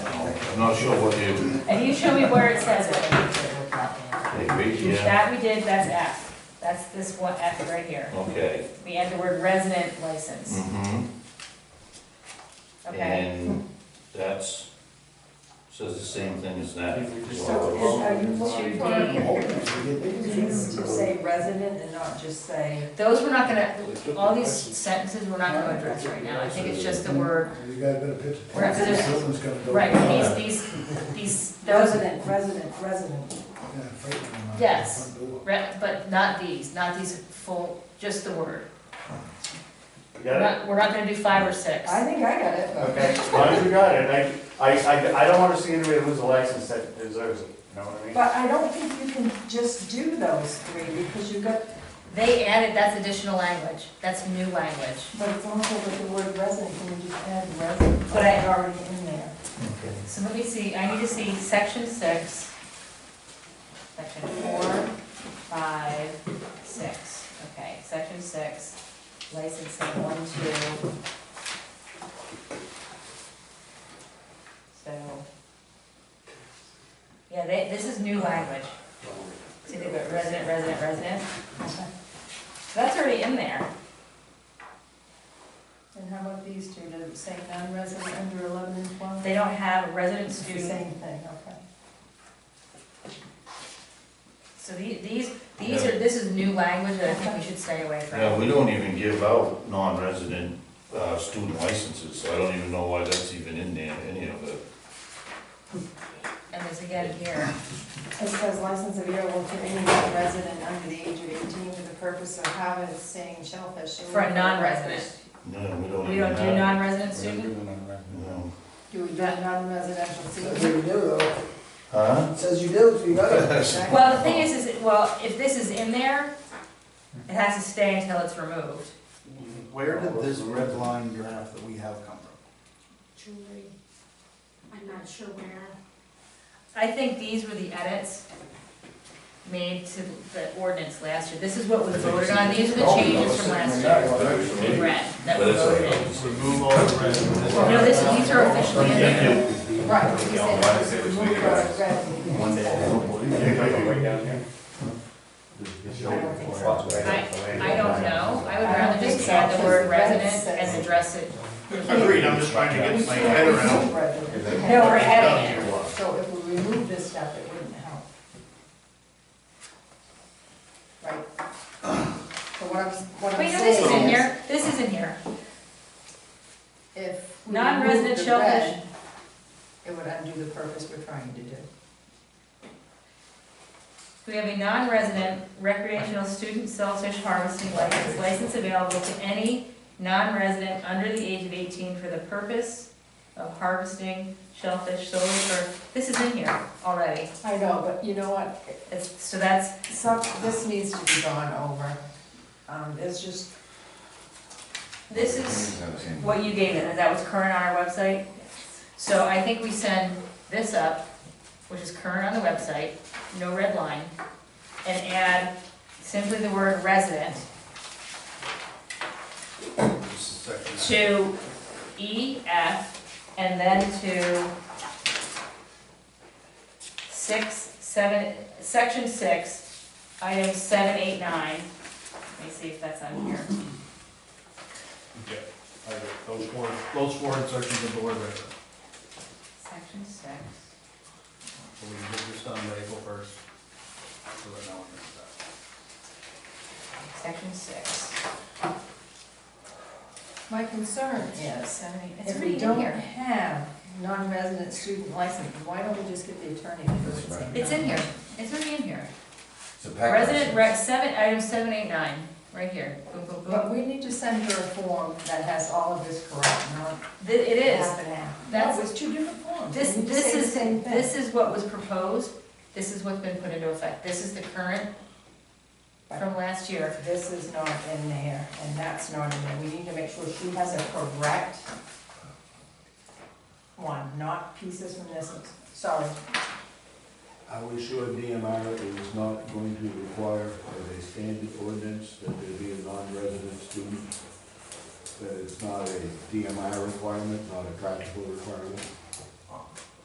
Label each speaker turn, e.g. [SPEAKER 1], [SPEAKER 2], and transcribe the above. [SPEAKER 1] I'm not sure what you,
[SPEAKER 2] If you show me where it says it,
[SPEAKER 1] maybe, yeah,
[SPEAKER 2] that we did, that's F. That's this one F right here.
[SPEAKER 1] okay.
[SPEAKER 2] We add the word resident license,
[SPEAKER 1] Mhm. Mm.
[SPEAKER 2] okay?
[SPEAKER 1] And that's, says the same thing as that.
[SPEAKER 3] So
[SPEAKER 1] So
[SPEAKER 3] is- are you looking for things to say resident and not just say?
[SPEAKER 2] Those we're not gonna, all these sentences we're not gonna address right now. I think it's just the word,
[SPEAKER 4] You got a better picture?
[SPEAKER 2] We're not gonna-
[SPEAKER 4] Someone's gonna go.
[SPEAKER 2] right, these, these, these, those are,
[SPEAKER 3] Resident, resident, resident.
[SPEAKER 4] Yeah, fight with them on the
[SPEAKER 2] Yes.
[SPEAKER 4] front door.
[SPEAKER 2] re- but not these, not these full, just the word.
[SPEAKER 5] You
[SPEAKER 2] We're
[SPEAKER 5] Got it?
[SPEAKER 2] not, we're not gonna do five or six.
[SPEAKER 3] I think I got it.
[SPEAKER 5] Okay, as long as you got it, I, I, I, I don't wanna see anybody lose a license that deserves it, you know what I mean?
[SPEAKER 3] But I don't think you can just do those three because you've got,
[SPEAKER 2] They added, that's additional language, that's new language.
[SPEAKER 3] but it's also with the word resident, can you just add resident?
[SPEAKER 2] But I-
[SPEAKER 3] It's Already in there.
[SPEAKER 2] So let me see, I need to see section six, section four, five, six, okay, section six, licensing, one, two. So, yeah, they, this is new language. See, they got resident, resident, resident. So That's already in there.
[SPEAKER 3] And how about these two, to say non-resident under eleven and twelve?
[SPEAKER 2] They don't have resident
[SPEAKER 3] It's the
[SPEAKER 2] student.
[SPEAKER 3] same thing, okay.
[SPEAKER 2] So the- these, these are, this is new language that I think we should stay away
[SPEAKER 1] Yeah,
[SPEAKER 2] from.
[SPEAKER 1] we don't even give out non-resident uh, student licenses, so I don't even know why that's even in there, any of it.
[SPEAKER 2] And there's again here,
[SPEAKER 3] It says license available to any resident under the age of eighteen for the purpose of having, saying shellfish.
[SPEAKER 2] for a non-resident.
[SPEAKER 1] No, we don't
[SPEAKER 2] We
[SPEAKER 1] even
[SPEAKER 2] don't do
[SPEAKER 1] have.
[SPEAKER 2] non-resident student?
[SPEAKER 1] No.
[SPEAKER 3] Do we do non-residential
[SPEAKER 4] Says
[SPEAKER 3] seating?
[SPEAKER 4] you do though,
[SPEAKER 1] Huh?
[SPEAKER 4] It says you do, so you better.
[SPEAKER 2] Well, the thing is, is, it- well, if this is in there, it has to stay until it's removed.
[SPEAKER 6] Where did this red line draft that we have come from?
[SPEAKER 7] Julie, I'm not sure where.
[SPEAKER 2] I think these were the edits made to the ordinance last year. This is what was voted on, these are the changes from last year. in Red, that
[SPEAKER 1] But
[SPEAKER 2] were
[SPEAKER 1] it's all
[SPEAKER 2] voted
[SPEAKER 1] right.
[SPEAKER 2] in. No, this, these are officially in there.
[SPEAKER 3] Right. he said it was moved or resident.
[SPEAKER 6] One day.
[SPEAKER 5] You got it right down here.
[SPEAKER 3] I don't think so.
[SPEAKER 2] I, I don't know, I would rather just add the word resident and address it.
[SPEAKER 8] Agreed, I'm just trying to get my head around.
[SPEAKER 3] Resident.
[SPEAKER 2] No, we're adding it.
[SPEAKER 3] So if we remove this stuff, it wouldn't help. Right? So what I'm, what I'm
[SPEAKER 2] Wait, no, this is in
[SPEAKER 3] saying is,
[SPEAKER 2] here, this is in here.
[SPEAKER 3] if we
[SPEAKER 2] Non-resident
[SPEAKER 3] remove the
[SPEAKER 2] shellfish.
[SPEAKER 3] red, it would undo the purpose we're trying to do.
[SPEAKER 2] We have a non-resident recreational student shellfish harvesting license, license available to any non-resident under the age of eighteen for the purpose of harvesting shellfish solely for, this is in here already.
[SPEAKER 3] I know, but you know what,
[SPEAKER 2] It's, so that's,
[SPEAKER 3] some, this needs to be gone over. Um, it's just,
[SPEAKER 2] this is what you gave it, and that was current on our website. So I think we send this up, which is current on the website, no red line, and add simply the word resident to E, F, and then to six, seven, section six, item seven, eight, nine. Let me see if that's on here.
[SPEAKER 8] Those warrants, those warrants are to the board right now.
[SPEAKER 2] Section six.
[SPEAKER 8] So we can get this done by April first. So right now, we're gonna start.
[SPEAKER 2] Section six.
[SPEAKER 3] my concern is,
[SPEAKER 2] Seven, eight, it's
[SPEAKER 3] if we
[SPEAKER 2] already in
[SPEAKER 3] don't
[SPEAKER 2] here.
[SPEAKER 3] have non-resident student license, why don't we just get the attorney to do it?
[SPEAKER 2] It's in here. It's already in here. Resident rec, seven, item seven, eight, nine, right here. Boom, boom, boom.
[SPEAKER 3] But we need to send her a form that has all of this correct, not
[SPEAKER 2] Th- It
[SPEAKER 3] half
[SPEAKER 2] is.
[SPEAKER 3] and half.
[SPEAKER 2] That's-
[SPEAKER 3] No, it's two different forms.
[SPEAKER 2] This,
[SPEAKER 3] We need to
[SPEAKER 2] this
[SPEAKER 3] Oh, say the
[SPEAKER 2] is,
[SPEAKER 3] same thing.
[SPEAKER 2] this is what was proposed. This is what's been put into effect. This is the current from last year.
[SPEAKER 3] This is not in there, and that's not in there. We need to make sure she has a correct one, not pieces from this, sorry.
[SPEAKER 9] I was sure DMR is not going to require as a standard ordinance that there be a non-resident student. That it's not a DMR requirement, not a practical requirement.